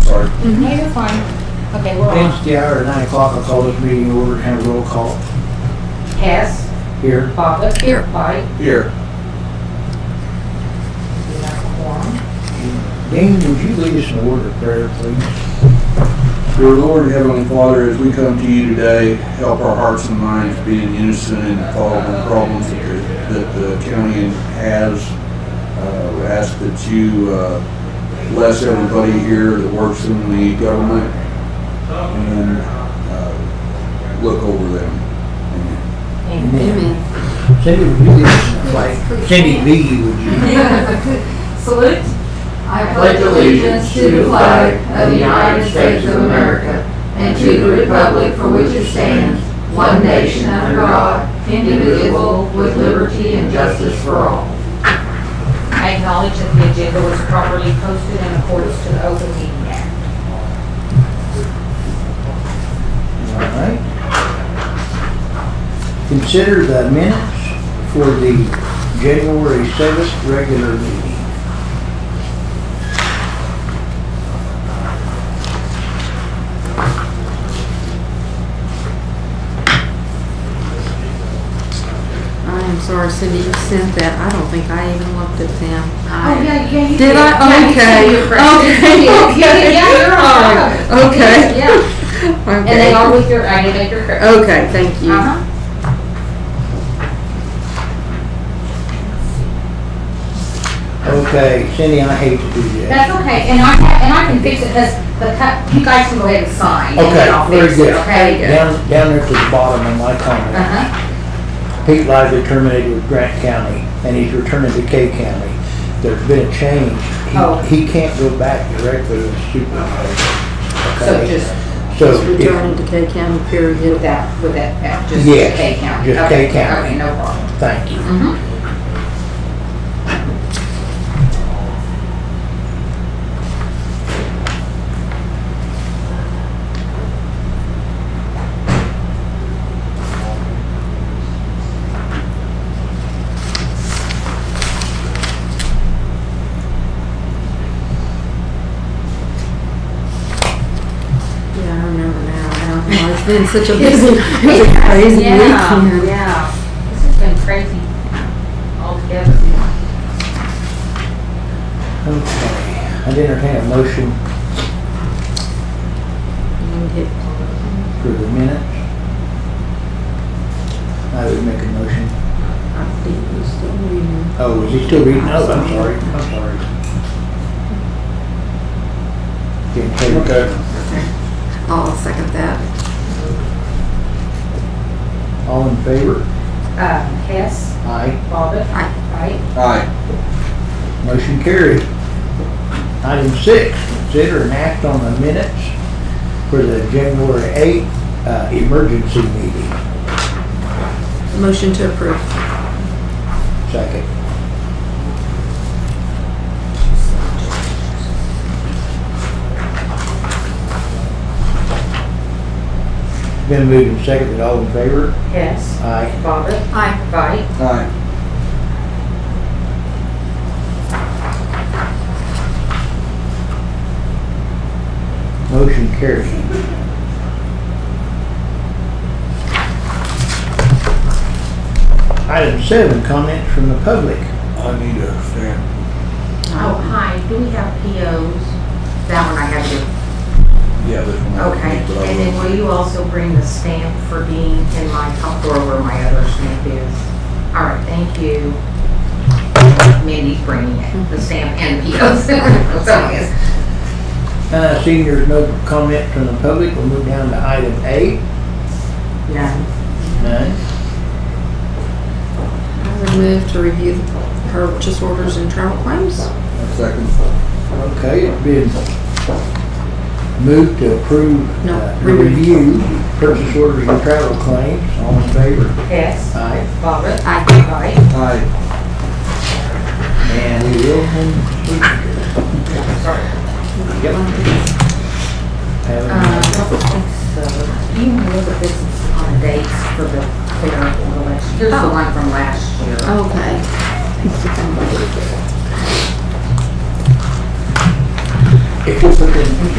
sorry. Mm-hmm. No, you're fine. Okay, we're on. Wednesday hour at nine o'clock, I'll call this meeting over and have a roll call Hess, here. Bobbit. Here. Pike. Here. We have a quorum. Dean, would you lead us in a word of prayer, please? Dear Lord and Heavenly Father, as we come to you today, help our hearts and minds be in unison in following the problems that the, that the county has. Uh, we ask that you uh, bless everybody here that works in the government and uh, look over them. Amen. Amen. Cindy, would you lead us in a flag? Cindy V, would you? Salute. I pledge allegiance to the flag of the United States of America and to the republic for which it stands, one nation under God, indivisible, with liberty and justice for all. I acknowledge that the agenda was properly posted in accordance to the Open Meeting Act. All right. Consider the minutes for the January seventh regular meeting. I am sorry, Cindy, you sent that. I don't think I even looked at them. I- Oh, yeah, you Did I? Okay. Okay. Yeah, yeah, you're on. All right. Okay. Yeah, and they are Okay. with your, I did make your correction. Okay, thank you. Uh-huh. Okay, Cindy, I hate to do that. That's okay, and I, ha- and I can fix it, because the, cu- you guys can go ahead and sign. and then Okay, I'll very fix it, good. Okay? Down, down there to the bottom of my comment. Uh-huh, Pete Lively terminated with Grant County, and he's returning to K County. There's been a change. He- Oh. He can't go back directly to the supervisor. so okay? just So, Just returning to K County, period. with that, with that, that- just Yes, K County. just Okay, K Okay, County. no problem. if- thank you. Mm-hmm, Yeah, I remember now. I don't know. It's been such a busy, it's a crazy yeah, weekend. yeah, this has been crazy altogether. Okay, I'd entertain a motion for the minutes. I would make a motion. I think we're still reading. Oh, is he still reading? Oh, I'm sorry, I'm sorry. Didn't take- I'll second that. All in favor? Uh, Hess, Aye. Bobbit. Aye. Right? Aye. Motion carried. Item six, consider an act on the minutes for the January 8th uh, emergency meeting. Motion to approve. Second. Been moved and seconded, all in favor? Hess, Aye. Bobbit. Aye. Right? Aye. Motion carried. Item seven, comments from the public. I need to stand. Oh, hi, do we have POs? That one I have to, Yeah, this one. I don't okay. need, but I And will. then will you also bring the stamp for Dean in my top drawer where my other stamp is? All right, thank you. Mindy's bringing it, the stamp and POs. So, yes. Uh, seeing there's no comment from the public, we'll move down to item eight. No. None. I would move to review the purchase orders and travel claims. Second. Okay, it's been moved to approve, No, uh, remove. review, purchase orders and travel claims. All in favor? Hess, Aye. Bobbit. Aye. Right? Aye. And we will have Uh, a- Um, I don't think so. Do you know the business on dates for the clerical election? Here's the Oh. one from last year. Okay. If you put in